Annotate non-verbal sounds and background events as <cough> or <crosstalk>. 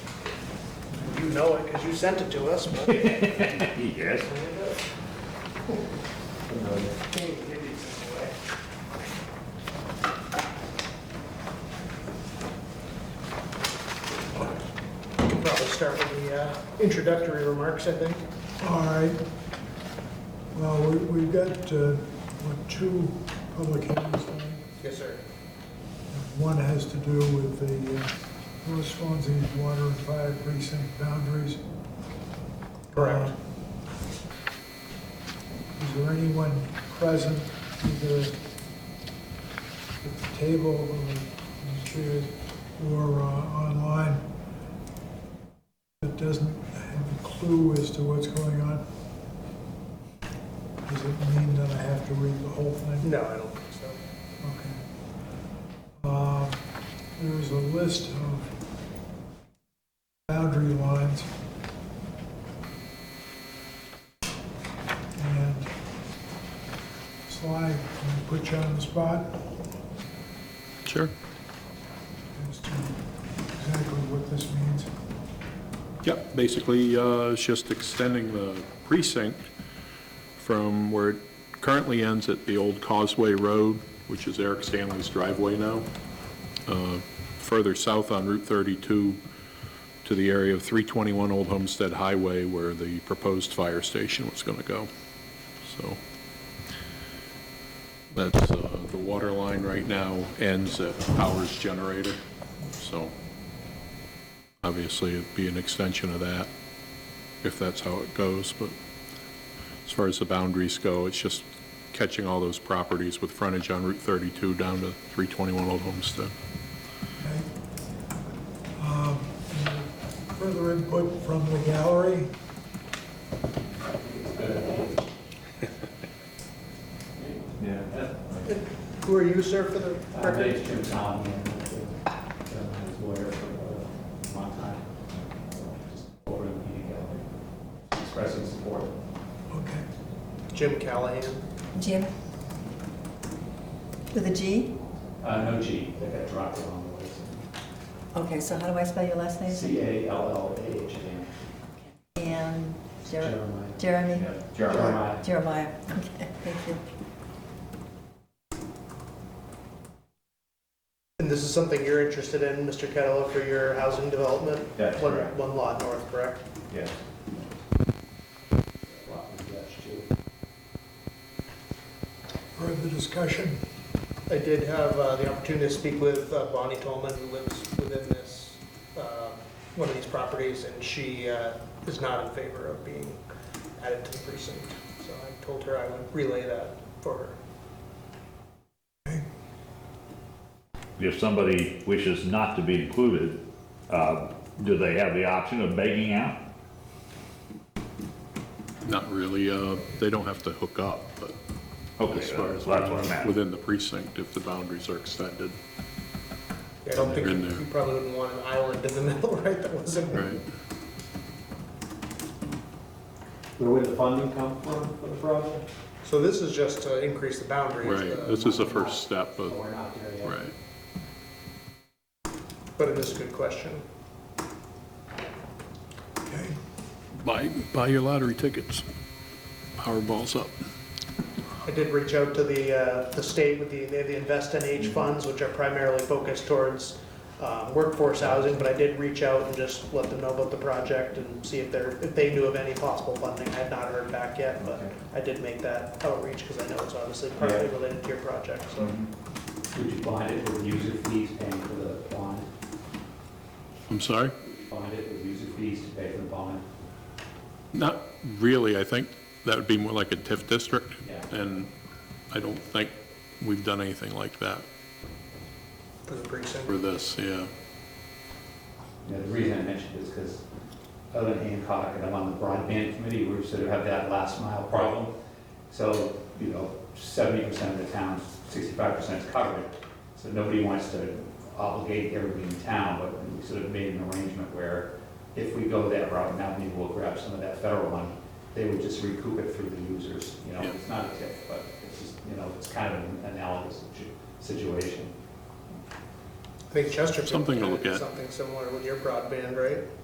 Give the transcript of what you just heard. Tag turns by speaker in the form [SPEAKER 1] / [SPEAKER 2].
[SPEAKER 1] know it because you sent it to us, <laughs> but it
[SPEAKER 2] Yes.
[SPEAKER 1] came to you some way. We can Probably start with the uh, introductory remarks, I think.
[SPEAKER 3] All right. Well, we- we've got, uh, what, two public hearings tonight?
[SPEAKER 1] Yes, sir.
[SPEAKER 3] One has to do with the uh, North Swansea Water and Fire Precinct boundaries. Uh,
[SPEAKER 1] Correct.
[SPEAKER 3] Is there anyone present, either at the table or in the chair or uh, online, that doesn't have a clue as to what's going on? Does it mean that I have to read the whole thing?
[SPEAKER 1] No, I don't think so.
[SPEAKER 3] Okay. Um, There is a list of boundary lines. And Sly, can I put you on the spot
[SPEAKER 4] Sure.
[SPEAKER 3] as to exactly what this means?
[SPEAKER 4] Yep, basically, uh, it's just extending the precinct from where it currently ends at the old Causeway Road, which is Eric Stanley's driveway now, uh, further south on Route 32 to the area of 321 Old Homestead Highway where the proposed fire station was going to go. So that's, uh, the water line right now ends at Powers Generator, so obviously it'd be an extension of that, if that's how it goes, but as far as the boundaries go, it's just catching all those properties with frontage on Route 32 down to 321 Old Homestead.
[SPEAKER 3] Okay. Um, Further input from the gallery?
[SPEAKER 2] Yeah.
[SPEAKER 1] Who are you, sir, for the
[SPEAKER 5] I'm
[SPEAKER 1] record?
[SPEAKER 5] based in town, I'm uh, his lawyer for a long time. Just Over in the, uh, expressing support.
[SPEAKER 3] Okay.
[SPEAKER 1] Jim Callahan.
[SPEAKER 6] Jim? With a G?
[SPEAKER 5] Uh, no G, that got dropped along
[SPEAKER 6] Okay, so how do I spell your last
[SPEAKER 5] the way.
[SPEAKER 6] name?
[SPEAKER 5] C A L L A H
[SPEAKER 6] And
[SPEAKER 5] A M.
[SPEAKER 6] Jer- Jeremy?
[SPEAKER 5] Yeah, Jeremiah.
[SPEAKER 6] Jeremiah, okay, thank you.
[SPEAKER 1] And this is something you're interested in, Mr. Kettle, for your housing development?
[SPEAKER 2] That's
[SPEAKER 1] One-
[SPEAKER 2] correct.
[SPEAKER 1] One lot north, correct?
[SPEAKER 2] Yes.
[SPEAKER 5] Lot of dash two.
[SPEAKER 3] Further discussion?
[SPEAKER 1] I did have uh, the opportunity to speak with uh, Bonnie Tolman, who lives within this, uh, one of these properties, and she uh, is not in favor of being added to the precinct. So I told her I would relay that for her.
[SPEAKER 2] If somebody wishes not to be included, uh, do they have the option of begging out?
[SPEAKER 4] Not really, uh, they don't have to hook up, but
[SPEAKER 2] Okay,
[SPEAKER 4] as far
[SPEAKER 2] that's
[SPEAKER 4] as
[SPEAKER 2] what I meant.
[SPEAKER 4] within the precinct, if the boundaries are extended,
[SPEAKER 1] I don't think,
[SPEAKER 4] They're in there.
[SPEAKER 1] you probably wouldn't want an island in the <laughs> middle, right, that wasn't.
[SPEAKER 4] right?
[SPEAKER 5] Where would the funding come from for the project?
[SPEAKER 1] So this is just to increase the boundaries.
[SPEAKER 4] Right,
[SPEAKER 1] uh,
[SPEAKER 4] this is the first step
[SPEAKER 5] So
[SPEAKER 4] of,
[SPEAKER 5] we're not there yet.
[SPEAKER 4] right.
[SPEAKER 1] But it is a good question.
[SPEAKER 3] Okay.
[SPEAKER 4] Buy, buy your lottery tickets. Powerball's up.
[SPEAKER 1] I did reach out to the, uh, the state with the, they have the Invest in
[SPEAKER 5] Mm-hmm.
[SPEAKER 1] Age funds, which are primarily focused towards um, workforce housing, but I did reach out and just let them know about the project and see if they're, if they knew of any possible funding. I have not heard back yet, but
[SPEAKER 5] Okay.
[SPEAKER 1] I did make that outreach because I know it's obviously partly
[SPEAKER 5] Yeah. Mm-hmm.
[SPEAKER 1] related to your project, so.
[SPEAKER 5] Would you bond it with user fees paying for the bond?
[SPEAKER 4] I'm sorry?
[SPEAKER 5] Would you Bond it with user fees to pay for the bond?
[SPEAKER 4] Not really, I think that would be more like a TIF district.
[SPEAKER 5] Yeah.
[SPEAKER 4] And I don't think we've done anything like that
[SPEAKER 1] For the precinct.
[SPEAKER 4] for this, yeah.
[SPEAKER 5] You know, the reason I mentioned this because other than Hancock, and I'm on the broadband committee, we sort of have that last mile problem. So, you know, seventy percent of the town, sixty-five percent is covered. So nobody wants to obligate everybody in town, but we sort of made an arrangement where if we go that route, now maybe we'll grab some of that federal money. They would just recoup it through the users, you know,
[SPEAKER 4] Yeah.
[SPEAKER 5] it's not a tip, but it's just, you know, it's kind of an analogous situ- situation.
[SPEAKER 1] I think Chesterfield.
[SPEAKER 4] Something to
[SPEAKER 1] did
[SPEAKER 4] look at.
[SPEAKER 1] Something similar with your broadband, right?